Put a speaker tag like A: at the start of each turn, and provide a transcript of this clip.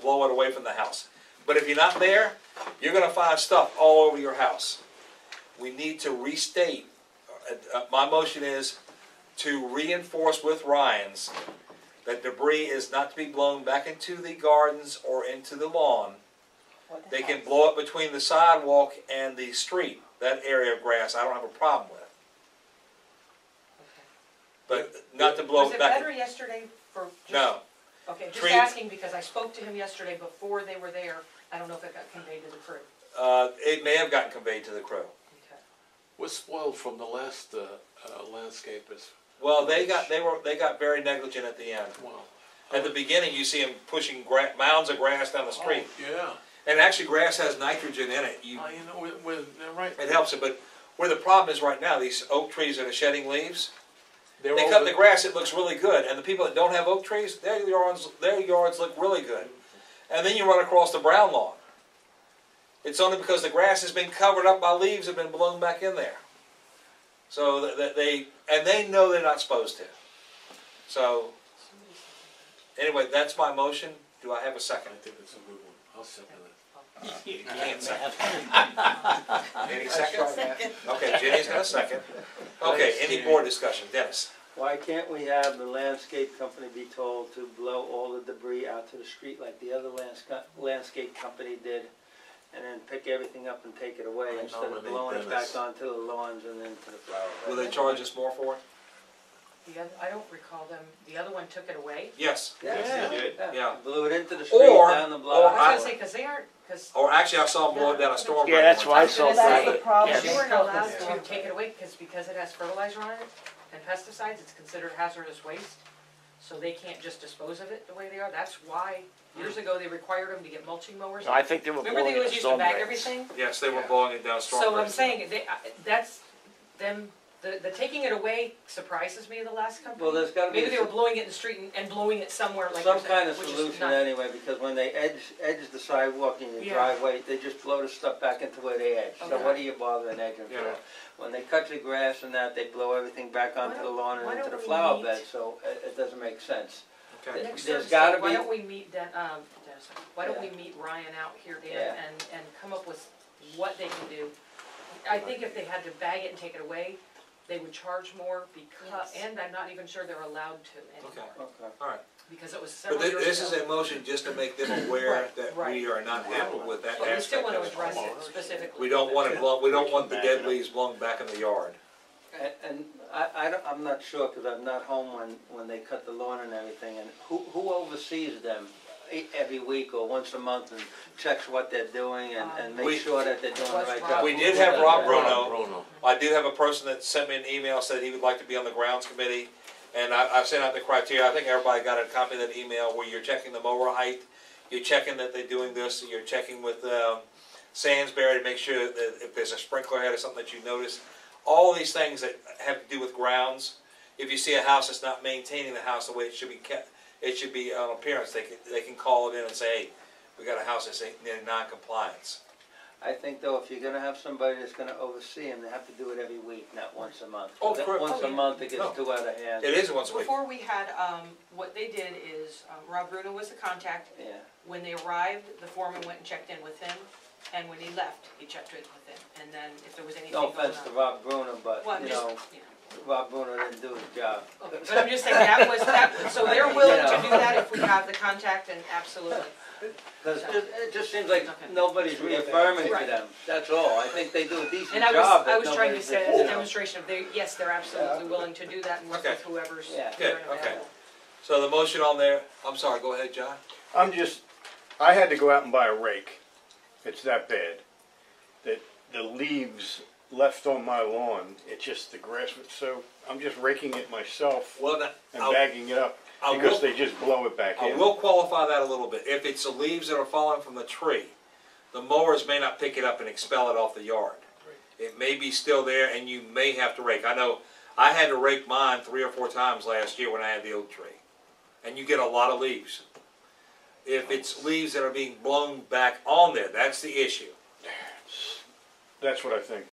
A: blow it away from the house. But if you're not there, you're gonna find stuff all over your house. We need to restate, uh, uh, my motion is to reinforce with Ryan's that debris is not to be blown back into the gardens or into the lawn.
B: What the
A: They can
B: heck?
A: blow it between the sidewalk and the street, that area of grass, I don't have a problem with. But not to blow
B: Was
A: it
B: it
A: back,
B: better yesterday for? just-
A: no,
B: Okay, just
A: trees-
B: asking because I spoke to him yesterday before they were there. I don't know if it got conveyed to the crew.
A: uh, it may have gotten conveyed to the crew.
B: Okay.
C: What's spoiled from the last uh, uh, landscapers?
A: Well, they got, they were, they got very negligent at the end.
C: Well,
A: At the beginning, you see them pushing gra- mounds of grass down the street,
C: Oh, yeah.
A: and actually, grass has nitrogen in it. You,
C: Oh, you know, when, when, they're right.
A: it helps it, but where the problem is right now, these oak trees that are shedding leaves,
C: They're
A: they
C: all
A: cut the grass. It looks really good, and the people that don't have oak trees, their yards, their yards look really good. And then you run across the brown lawn. It's only because the grass has been covered up by leaves have been blown back in there. So that- that they and they know they're not supposed to. So anyway, that's my motion. Do I have a
C: I
A: second?
C: think it's a good one. I'll second it.
A: You can't second. Any second? Okay, Jenny's got a second. Okay, any board discussion? Dennis?
D: Why can't we have the landscape company be told to blow all the debris out to the street like the other landsca- landscape company did? And then pick everything up and take it away
C: I
D: instead of
C: nominate
D: blowing it back
C: Dennis.
D: onto the lawns and then to the flower
A: Will
D: beds?
A: they charge us more for it?
B: The other, I don't recall them, the other one took it away.
A: Yes.
D: Yeah,
A: Yeah. Yeah.
D: Blew it into the street,
A: Or-
D: down the
B: I
A: or
D: block.
B: was gonna say, cause they aren't, cause
A: Or actually, I saw them blow it down a storm.
E: Yeah, that's
A: drain one
E: why I
A: time.
E: saw
F: That's the
E: that.
F: problem.
B: you weren't allowed to take it away, cause because it has fertilizer on it and pesticides, it's considered hazardous waste. So they can't just dispose of it the way they are. That's why
A: Hmm.
B: years ago they required them to get mulching mowers.
E: I think they were
B: Remember they
E: blowing
B: always
E: it
B: used to
E: storm
B: bag
E: drains.
B: everything?
A: Yes, they were blowing it down a storm.
B: So I'm
A: drain.
B: saying, they, I- that's, them, the, the taking it away surprises me, the last company.
D: Well, there's gotta be
B: Maybe they were
D: a-
B: blowing it in the street and, and blowing it somewhere like
D: Some
B: you're
D: kind
B: saying,
D: of
B: which is
D: solution
B: not-
D: anyway, because when they edge, edge the sidewalk in
B: Yeah.
D: your driveway, they just blow the stuff back into where they edge. So
B: Okay.
D: what are you bothering edging
A: Yeah.
D: for? When they cut the grass and that, they blow everything back
B: Why
D: onto the
B: don't-
D: lawn
B: why
D: and into
B: don't
D: the
B: we
D: flower
B: meet-
D: bed, so it, it doesn't make sense.
A: Okay.
B: Next
D: There's
B: Thursday,
D: gotta
B: why
D: be-
B: don't we meet, Den- um, Dennis, why don't we meet Ryan out here, Dan,
D: Yeah.
B: and, and come up with what they can do? I think if they had to bag it and take it away, they would charge more because,
F: Yes.
B: and I'm not even sure they're allowed to anymore,
A: Okay.
D: Okay.
A: All right.
B: because it was several
A: But thi-
B: years ago.
A: this is a motion just to make them aware
B: Right,
A: that
B: right.
A: we are not happy with that
B: But we still
A: aspect
B: wanna
A: of it.
B: address it specifically.
A: We don't want it blown, we don't want the dead leaves blown back in the yard.
D: And, and I, I don't, I'm not sure, because I'm not home when, when they cut the lawn and everything, and who, who oversees them e- every week or once a month and checks what they're doing and, and
A: We-
D: makes sure that they're doing the
B: Was
D: right
B: Um, Rob-
D: job?
A: We did have Rob Bruno.
C: Bruno.
A: I do have a person that sent me an email, said he would like to be on the grounds committee, and I, I've sent out the criteria, I think everybody got a copy of that email where you're checking the mower height, you're checking that they're doing this, and you're checking with, um, Sandsbury to make sure that if there's a sprinkler head or something that you notice. All these things that have to do with grounds, if you see a house that's not maintaining the house the way it should be kept, it should be on appearance, they can, they can call it in and say, hey, we got a house that's in in non-compliance.
D: I think though, if you're gonna have somebody that's gonna oversee them, they have to do it every week, not once a month.
A: Oh, correct.
D: Once
B: Oh,
D: a
B: yeah.
D: month, it
A: No.
D: gets too out of hand.
A: It is once a week.
F: Before we had, um, what they did is, um, Rob Bruno was the contact.
D: Yeah,
F: When they arrived, the foreman went and checked in with him, and when he left, he checked in with him, and then if there was anything
D: no
F: going on.
D: offense to Rob Bruno, but,
F: Well, I'm
D: you
F: just-
D: know,
F: yeah.
D: Rob Bruno didn't do his job.
F: Okay, But I'm just saying, that was, that, was- so they're willing to do that if we have the contact, and absolutely.
D: Because it, it just seems like
F: Okay.
D: nobody's reaffirming to
F: Right.
D: them, that's all, I think they do a decent
F: And I was,
D: job,
F: I
D: but
F: was trying to
D: nobody's
F: say,
D: you
F: as a
D: know.
F: demonstration of they, yes, they're absolutely willing to do that and work with
A: Okay.
F: whoever's.
D: Yeah.
F: there
A: Good,
F: and
A: okay.
F: available.
A: So the motion on there, I'm sorry, go ahead, John.
E: I'm just, I had to go out and buy a rake. It's that bad. That the leaves left on my lawn, it's just the grass was so, I'm just raking it myself
A: Well, now,
E: and
A: I'll-
E: bagging it up
A: I will-
E: because they just blow it back
A: I
E: in.
A: will qualify that a little bit. If it's the leaves that are falling from the tree, the mowers may not pick it up and expel it off the yard. It may be still there and you may have to rake. I know, I had to rake mine three or four times last year when I had the oak tree. And you get a lot of leaves. If it's leaves that are being blown back on there, that's the issue.
E: That's what I think.